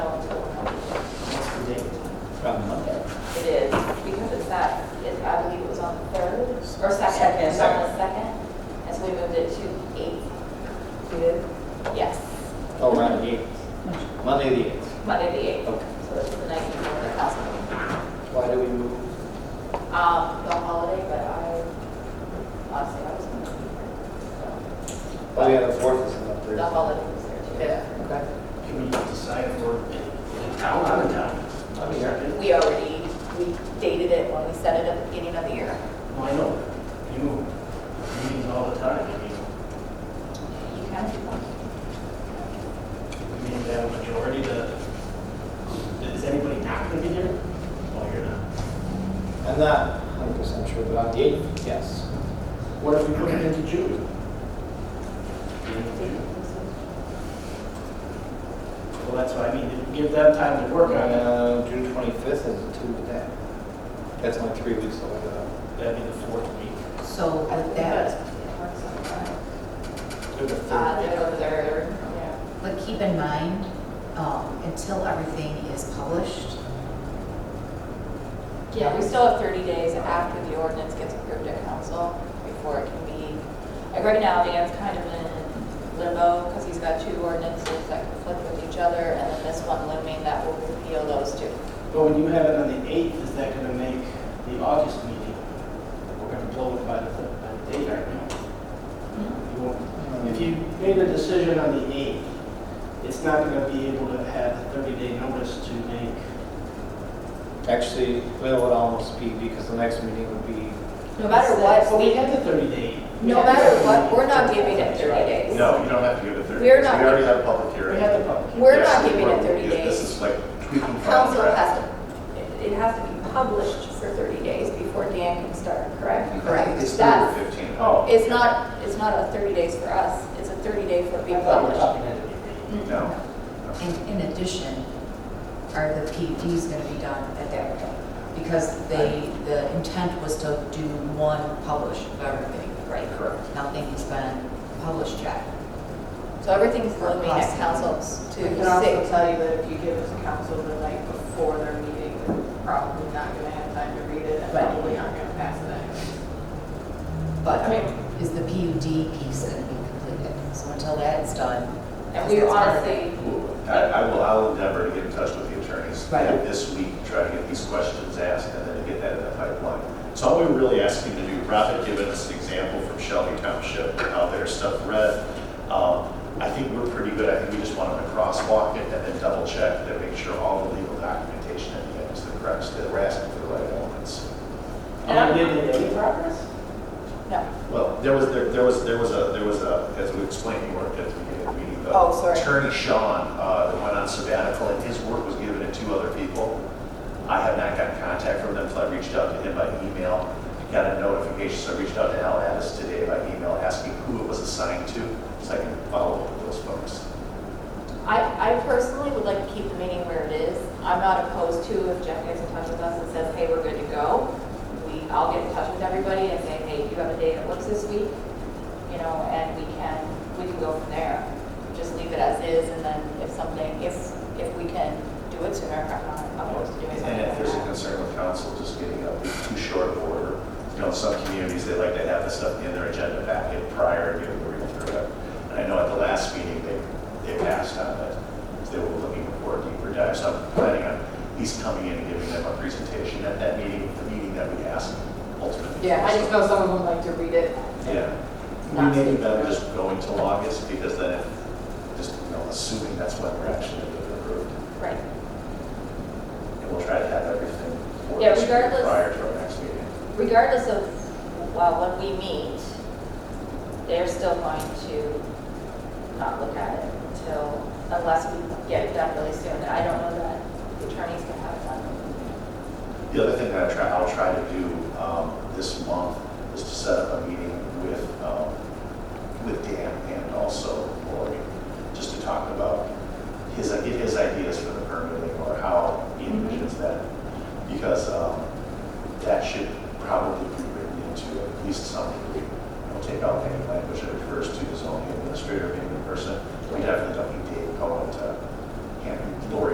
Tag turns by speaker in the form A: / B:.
A: Oh,
B: Monday the eighth.
A: Okay.
B: So it's the night before the council meeting.
A: Why do we move?
B: Um, the holiday, but I, honestly, I was gonna be here.
A: Oh, yeah, the fourth is not
B: So
A: Thursday.
B: the holiday was there too.
A: Okay.
C: Can we decide if we're in town, out of town? I mean, I didn't-
B: We already, we dated it when we set it at the beginning of the year.
C: well, I know, you move meetings all the time, I mean,
B: You can if you want.
C: you need to have a majority to, is anybody not gonna be here? Oh, you're not.
A: I'm not hundred percent sure, but on the eighth, yes.
C: What if we put it into June? Well, that's what I mean, give them time to work on it,
A: Uh, June twenty-fifth is a Tuesday. That's only three weeks away, though.
C: that'd be the fourth week.
D: So with
B: That's-
D: that,
B: it works out fine.
A: Through the
B: Uh,
A: third.
B: the third, yeah.
D: but keep in mind, um, until everything is published,
B: Yeah, we still have 30 days after the ordinance gets approved at council before it can be, like right now, Dan's kind of in limbo because he's got two ordinances that conflict with each other and then this one limiting that will repeal those two.
C: But when you have it on the eighth, is that gonna make the August meeting? We're gonna blow it by the, by the date right now. You won't
A: Mm-hmm.
C: If you made a decision on the 8th, it's not going to be able to have a 30-day notice to make,
A: Actually, well, it would almost be, because the next meeting would be,
B: No matter what,
C: but we
B: we,
C: had the 30-day.
B: no matter what, we're not giving it 30 days.
E: No, you don't have to give it 30 days.
B: We're not-
E: We already had a public
C: We
E: hearing.
C: had the public. hearing.
B: We're not
E: Yes,
B: giving it 30
E: yeah, This
B: days.
E: is like tweaking files.
B: Council has to, it- it has to be published for 30 days before Dan can start, correct?
D: Correct.
E: It's
B: That's-
E: 15.
C: Oh.
B: It's not, it's not a 30 days for us, it's a 30 day for
C: I
B: being
C: thought we
B: published.
C: were talking at the
E: No. no.
D: and in addition, are the PUDs going to be done at that point? Because they, the intent was to do one publish of everything, right?
E: Correct.
D: Nothing has been published yet.
B: So everything's limiting at councils
F: I
B: to
F: can also
B: six.
F: tell you that if you give it to council the night before their meeting, they're probably not going to have time to read it and
D: Right.
F: probably aren't going to pass it anyway.
D: But
B: I mean-
D: is the PUD piece going to be completed? So until that's done.
B: And we
D: that's part of it.
B: honestly,
E: I, I will, I'll endeavor to get in touch with the attorneys
D: Right.
E: this week, try to get these questions asked, and then to get that in the pipeline. So all we we're really asking to do, Rob had given us an example from Shelby Township, how their stuff read. Um, I think we're pretty good, I think we just want them to crosswalk it and then double check to make sure all the legal documentation at the end is the correct, that we're asking for the right elements.
B: Mm.
C: meeting. Are we getting any progress?
B: no.
E: Well, there was, there there was, there was a, there was a, as we explained, you weren't at the beginning of the meeting, but.
B: Oh, sorry.
E: Attorney Sean, uh, that went on sabbatical, and his work was given to two other people. I have not gotten contact from them, so I reached out to him by email, got a notification, so I reached out to Al Addis today by email, asking who it was assigned to, so I can follow up with those folks.
B: I, I personally would like to keep the meeting where it is. I'm not opposed to if Jeff gets in touch with us and says, hey, we're good to go. We, I'll get in touch with everybody and say, hey, you have a day that works this week, you know, and we can, we can go from there. Just leave it as is, and then if something, if, if we can do it sooner, I'm not opposed to doing something.
E: And if there's a
B: like that.
E: concern with council just getting up too short of order, you know, some communities, they like to have this stuff in their agenda packet prior to the real through it. And I know at the last meeting, they, they passed on it, they were looking for a deeper dive, so I'm planning on at least coming in and giving them a presentation at that meeting, the meeting that we asked ultimately.
F: Yeah, I just know some of them like to read it.
E: Yeah.
F: Not
E: We may
F: speak.
E: them just going till August, because then, it- just, you know, assuming that's when we're actually approved.
B: Right.
E: And we'll try to have everything for
B: Yeah,
E: this year
B: regardless-
E: prior to our next meeting.
B: regardless of, well, when we meet, they're still going to not look at it until, unless we get it done really soon. I don't know that the attorneys can have it done.
E: The other thing that I try, I'll try to do um, this month is to set up a meeting with, um, with Dan and also Lori, just to talk about his, get his ideas um,